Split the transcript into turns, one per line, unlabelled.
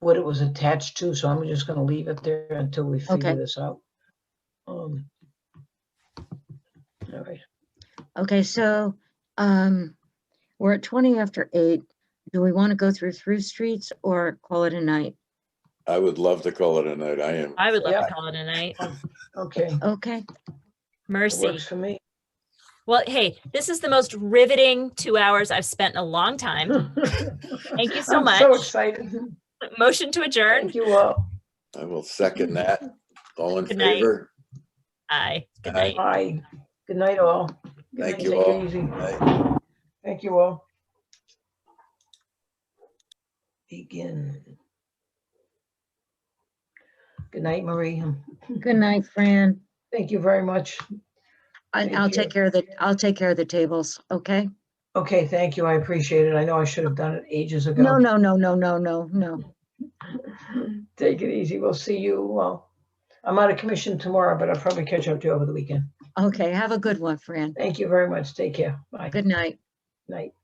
what it was attached to, so I'm just gonna leave it there until we figure
Okay.
this out. Um. All right,
Okay, so, um, we're at twenty after eight. Do we want to go through through streets or call it a night?
I would love to call it a night. I am.
I would love
Yeah.
to call it a night. Oh,
okay,
Okay,
it
Mercy.
works for me.
Well, hey, this is the most riveting two hours I've spent in a long time.
Hmm.
Thank you so
I'm So
much.
excited.
Motion to adjourn.
Thank you all.
I will second that. All in
Good night.
favor?
Aye. Good
Aye.
night.
Bye. Good night, all. Good
Thank
night.
you
Take it
all.
easy.
Aye.
Thank you all. Begin. Good night, Marie.
good night, Fran.
Thank you very much.
I,
Thank
I'll
you.
take care of the, I'll take care of the tables, okay?
Okay, thank you. I appreciate it. I know I should have done it ages ago.
No, no, no, no, no, no, no.
Take it easy. We'll see you. Well, I'm out of commission tomorrow, but I'll probably catch up to you over the weekend.
Okay, have a good one, Fran.
Thank you very much. Take care. Bye.
Good night.
Night.